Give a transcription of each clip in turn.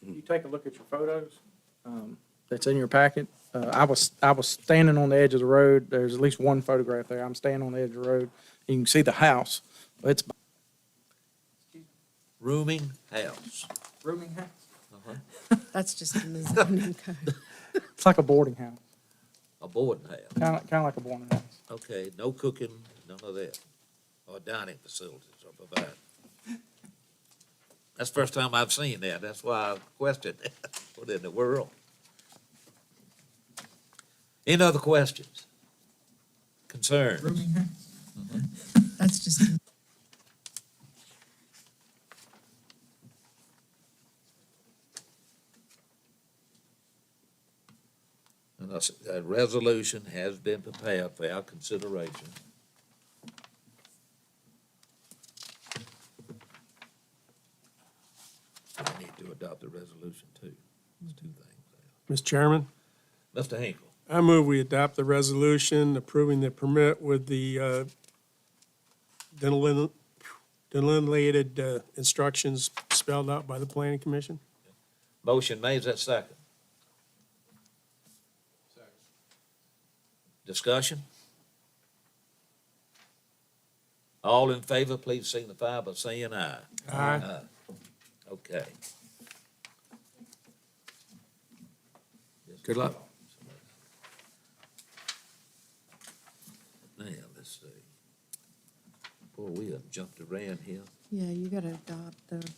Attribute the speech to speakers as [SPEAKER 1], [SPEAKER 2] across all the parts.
[SPEAKER 1] you take a look at your photos um, that's in your packet, uh, I was, I was standing on the edge of the road. There's at least one photograph there. I'm standing on the edge of the road. You can see the house. It's
[SPEAKER 2] Rooming house.
[SPEAKER 1] rooming house.
[SPEAKER 2] Uh-huh.
[SPEAKER 3] That's just in the zoning code.
[SPEAKER 1] It's like a boarding house,
[SPEAKER 2] A boarding house.
[SPEAKER 1] kind of, kind of like a boarding house.
[SPEAKER 2] Okay, no cooking, none of that. Or dining facilities are provided. That's the first time I've seen that. That's why I questioned it. What in the world? Any other questions? Concerns?
[SPEAKER 3] That's just, in-
[SPEAKER 2] And a, s- a resolution has been prepared for our consideration. We need to adopt the resolution too. It's two things.
[SPEAKER 4] Mr. Chairman,
[SPEAKER 2] Mr. Hinkle,
[SPEAKER 4] I move we adopt the resolution approving the permit with the uh, delin- delineated uh, instructions spelled out by the planning commission.
[SPEAKER 2] motion made, is that second? Discussion? All in favor, please signify by saying aye.
[SPEAKER 4] Aye.
[SPEAKER 2] Okay. Good luck. Now, let's see. Boy, we have jumped around here,
[SPEAKER 3] yeah, you gotta adopt the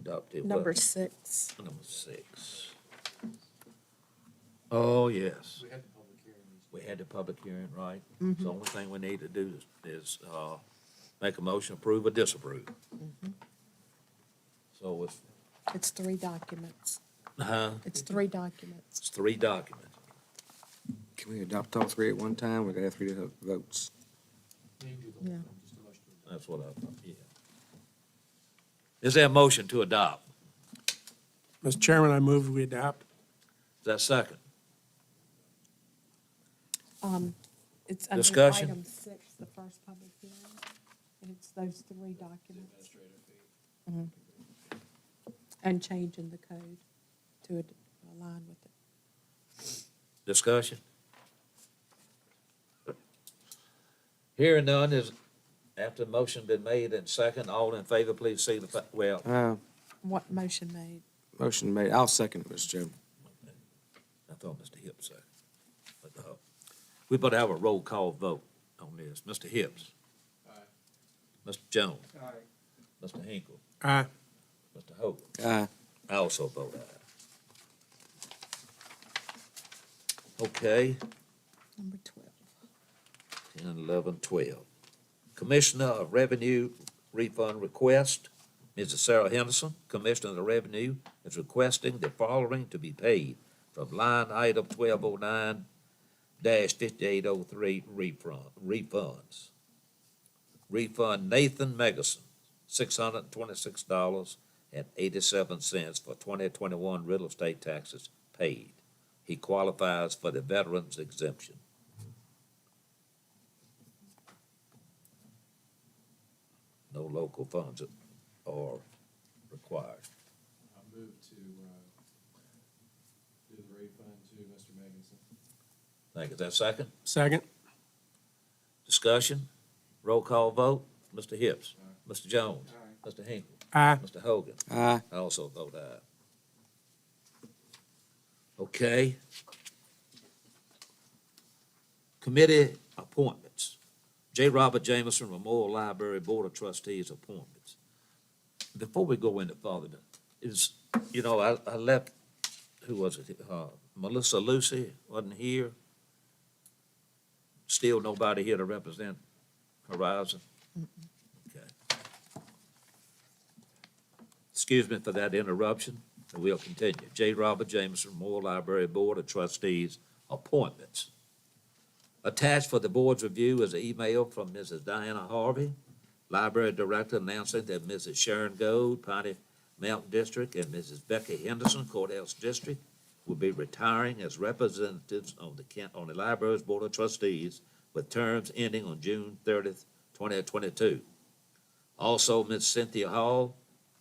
[SPEAKER 2] adopted what?
[SPEAKER 3] number six.
[SPEAKER 2] Number six. Oh, yes. Mm-hmm. We had the public hearing, right? So the only thing we need to do is, is, uh, make a motion, approve or disapprove. Mm-hmm. So it's,
[SPEAKER 3] It's three documents.
[SPEAKER 2] huh,
[SPEAKER 3] It's three documents.
[SPEAKER 2] it's three documents.
[SPEAKER 5] Can we adopt all three at one time? We gotta have three different votes.
[SPEAKER 3] Yeah.
[SPEAKER 2] That's what I thought, yeah. Is there a motion to adopt?
[SPEAKER 4] Mr. Chairman, I move we adopt.
[SPEAKER 2] Is that second?
[SPEAKER 3] Um, it's under
[SPEAKER 2] Discussion?
[SPEAKER 3] item six, the first public hearing, and it's those three documents. Mhm. And changing the code to ad- align with it.
[SPEAKER 2] Discussion? Hearing none is, after the motion been made and second, all in favor, please signify, well,
[SPEAKER 5] Uh,
[SPEAKER 3] What motion made?
[SPEAKER 5] motion made. I'll second it, Mr. Chairman.
[SPEAKER 2] I thought Mr. Hips said. But, uh, We better have a roll call vote on this. Mr. Hips? Aye. Mr. Jones? Aye. Mr. Hinkle?
[SPEAKER 4] Aye.
[SPEAKER 2] Mr. Hogan?
[SPEAKER 5] Uh,
[SPEAKER 2] I also vote aye. Okay,
[SPEAKER 3] Number twelve.
[SPEAKER 2] 10, 11, 12. Commissioner of Revenue refund request, Mrs. Sarah Henderson, Commissioner of the Revenue, is requesting the following to be paid from line item 1209 5803 refund, refunds. Refund Nathan Megason, $626.87 for 2021 real estate taxes paid. He qualifies for the veterans exemption. no local funds are required.
[SPEAKER 6] I move to, uh, do the refund to Mr. Meganson.
[SPEAKER 2] Thank you. Is that second?
[SPEAKER 4] Second?
[SPEAKER 2] Discussion? Roll call vote? Mr. Hips? Mr. Jones? Mr. Hinkle?
[SPEAKER 4] Aye.
[SPEAKER 2] Mr. Hogan?
[SPEAKER 5] aye.
[SPEAKER 2] I also vote aye. Okay. Committee appointments. J. Robert Jameson Memorial Library Board of Trustees appointments. Before we go into further, is, you know, I, I left, who was it? Uh, Melissa Lucy wasn't here. Still nobody here to represent Horizon. Okay. Excuse me for that interruption, and we'll continue. J. Robert Jameson, Moore Library Board of Trustees, appointments. Attached for the board's review is an email from Mrs. Diana Harvey, Library Director, announcing that Mrs. Sharon Gold, Piney Mountain District, and Mrs. Becky Henderson, Courthouse District, will be retiring as representatives on the Kent, on the Library's Board of Trustees with terms ending on June thirtieth, twenty twenty-two. Also, Ms. Cynthia Hall,